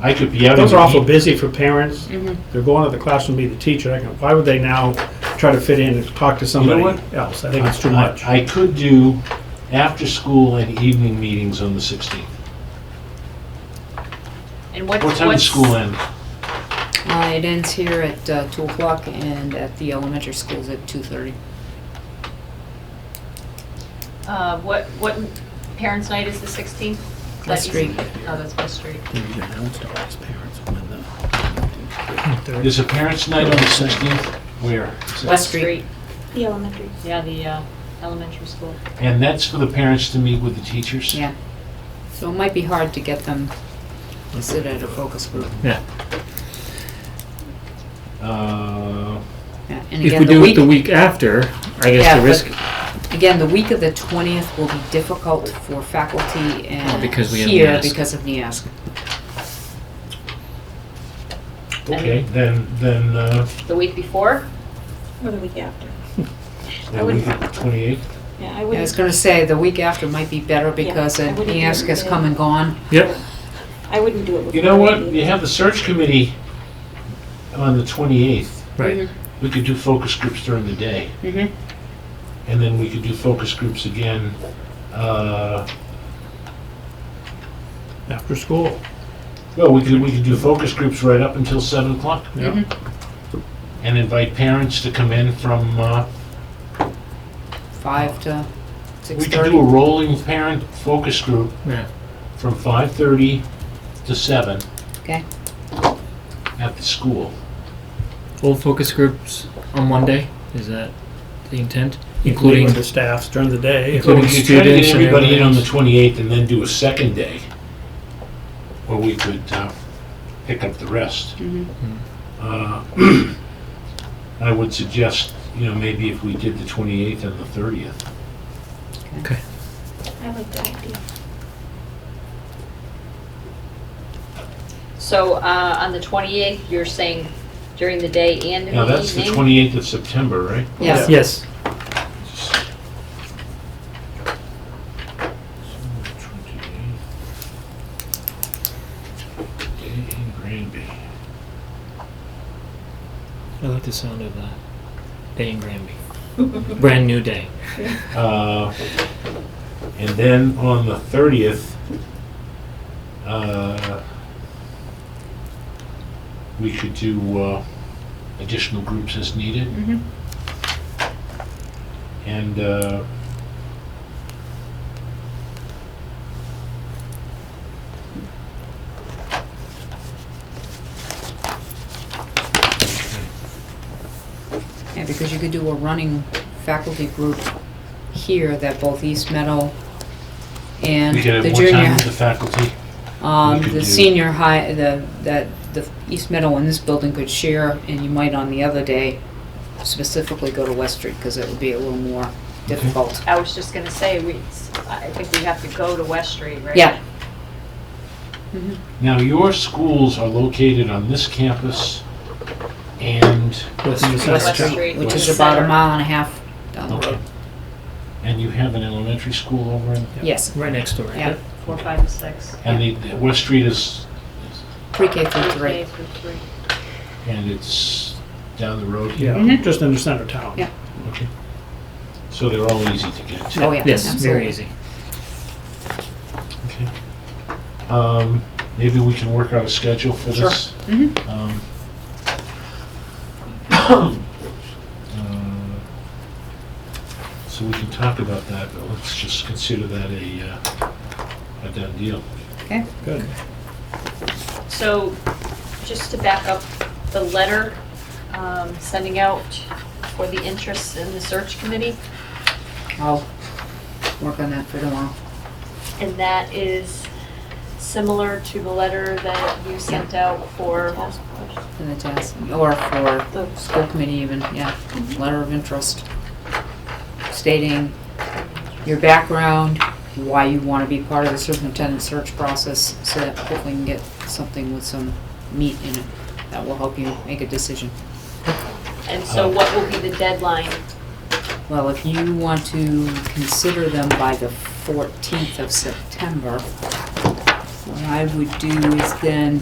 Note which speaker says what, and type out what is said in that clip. Speaker 1: I could be out in
Speaker 2: Those are awful
Speaker 1: the heat.
Speaker 2: busy for parents.
Speaker 3: Mm-hmm.
Speaker 2: They're going to the classroom, be the teacher. I can- Why would they now try to fit in and talk to somebody
Speaker 1: what?
Speaker 2: else? I think it's too much.
Speaker 1: I I could do after-school and evening meetings on the 16th.
Speaker 3: And what,
Speaker 1: What time does
Speaker 3: what's,
Speaker 1: school end?
Speaker 4: Uh, It ends here at uh, 2 o'clock and at the elementary schools at 2:30.
Speaker 3: uh, what, what parents' night is the 16th?
Speaker 4: West
Speaker 3: That
Speaker 4: Street.
Speaker 3: is- Oh, that's West Street.
Speaker 1: Is a parents' night on the 16th? Where? Is that-
Speaker 4: West Street.
Speaker 5: The elementary.
Speaker 3: Yeah, the uh, elementary school.
Speaker 1: And that's for the parents to meet with the teachers?
Speaker 4: Yeah. So it might be hard to get them to sit at a focus group.
Speaker 1: Uh,
Speaker 4: Yeah, And
Speaker 6: If
Speaker 4: again,
Speaker 6: we
Speaker 4: the
Speaker 6: do it
Speaker 4: week,
Speaker 6: the week after,
Speaker 4: Yeah,
Speaker 6: I guess
Speaker 4: but-
Speaker 6: the risk,
Speaker 4: again, the week of the 20th will be difficult for faculty and
Speaker 6: because we have
Speaker 4: here
Speaker 6: NIASC.
Speaker 4: because of NIASC.
Speaker 1: Okay, then, then, uh,
Speaker 3: The week before?
Speaker 5: Or the week after.
Speaker 1: the week of the 28th?
Speaker 5: Yeah, I
Speaker 4: Yeah, I was
Speaker 5: wouldn't,
Speaker 4: going to say, the week after might be better because
Speaker 5: I
Speaker 4: uh,
Speaker 5: wouldn't
Speaker 4: NIASC has
Speaker 5: even-
Speaker 4: come and gone.
Speaker 6: yep,
Speaker 5: I wouldn't do it before.
Speaker 1: You know
Speaker 5: the
Speaker 1: what?
Speaker 5: meeting.
Speaker 1: You have the search committee on the 28th.
Speaker 6: right.
Speaker 4: Mm-hmm.
Speaker 1: We could do focus groups during the day.
Speaker 4: Mhm.
Speaker 1: And then we could do focus groups again, uh,
Speaker 2: After school.
Speaker 1: well, we could, we could do focus groups right up until 7 o'clock.
Speaker 2: Yeah.
Speaker 1: And invite parents to come in from, uh,
Speaker 4: 5 to
Speaker 1: we could do a
Speaker 4: 6:30.
Speaker 1: rolling parent focus group
Speaker 6: Yeah.
Speaker 1: from 5:30 to 7.
Speaker 4: Okay.
Speaker 1: At the school.
Speaker 6: Old focus groups on Monday, is that the intent?
Speaker 2: Meeting
Speaker 6: Including,
Speaker 2: with the staffs during the day.
Speaker 6: Including
Speaker 1: Well, we could try to
Speaker 6: students
Speaker 1: Get
Speaker 6: and
Speaker 1: everybody in on the
Speaker 6: everything.
Speaker 1: 28th and then do a second day, or we could uh, pick up the rest.
Speaker 6: Mm-hmm.
Speaker 1: Uh, I would suggest, you know, maybe if we did the 28th and the 30th.
Speaker 5: I like that idea.
Speaker 3: So uh, on the 28th, you're saying during the day and in
Speaker 1: Now,
Speaker 3: the
Speaker 1: that's the
Speaker 3: evening?
Speaker 1: 28th of September, right?
Speaker 4: Yes.
Speaker 6: yes,
Speaker 1: Day in Granby.
Speaker 6: I like the sound of the day in Granby. Brand new day.
Speaker 1: Uh, And then on the 30th, uh, we could do uh, additional groups as needed.
Speaker 4: Mhm.
Speaker 1: And uh,
Speaker 4: Yeah, because you could do a running faculty group here that both East Meadow and
Speaker 1: we could
Speaker 4: the
Speaker 1: have more time
Speaker 4: junior,
Speaker 1: with the faculty.
Speaker 4: um,
Speaker 1: we could
Speaker 4: the
Speaker 1: do-
Speaker 4: senior high, the, that, the East Meadow and this building could share, and you might on the other day specifically go to West Street, because it would be a little more difficult.
Speaker 3: I was just gonna say, we, I think we have to go to West Street, right?
Speaker 4: Yeah,
Speaker 1: Now, your schools are located on this campus and,
Speaker 2: With the
Speaker 3: West
Speaker 2: staff.
Speaker 3: Street.
Speaker 4: which is
Speaker 3: the
Speaker 4: about a
Speaker 3: center.
Speaker 4: mile and a half down the
Speaker 1: okay.
Speaker 4: road.
Speaker 1: And you have an elementary school over in,
Speaker 4: Yes,
Speaker 6: Right next door.
Speaker 4: yeah,
Speaker 3: Four, five, and six.
Speaker 1: and the, the West Street is,
Speaker 4: pre-K through
Speaker 3: Okay,
Speaker 4: three.
Speaker 3: for three.
Speaker 1: and it's down the road here.
Speaker 2: Yeah,
Speaker 4: Mhm.
Speaker 2: just in the center of town.
Speaker 4: Yeah.
Speaker 1: Okay. So they're all easy to get to.
Speaker 4: Oh, yeah,
Speaker 6: Yes,
Speaker 4: absolutely.
Speaker 6: very easy.
Speaker 1: Okay. Um, maybe we can work out a schedule for
Speaker 4: Sure.
Speaker 1: this.
Speaker 4: Mm-hmm.
Speaker 1: Um, uh, So we can talk about that, but let's just consider that a, uh, a done deal.
Speaker 2: Good.
Speaker 3: So, just to back up, the letter um, sending out for the interests in the search committee,
Speaker 4: I'll work on that for tomorrow.
Speaker 3: and that is similar to the letter that you sent out for,
Speaker 4: For the task, or for
Speaker 3: The-
Speaker 4: school committee even, yeah, letter of interest stating your background, why you want to be part of the superintendent search process, so that hopefully you can get something with some meat in it that will help you make a decision.
Speaker 3: and so what will be the deadline?
Speaker 4: Well, if you want to consider them by the 14th of September, what I would do is then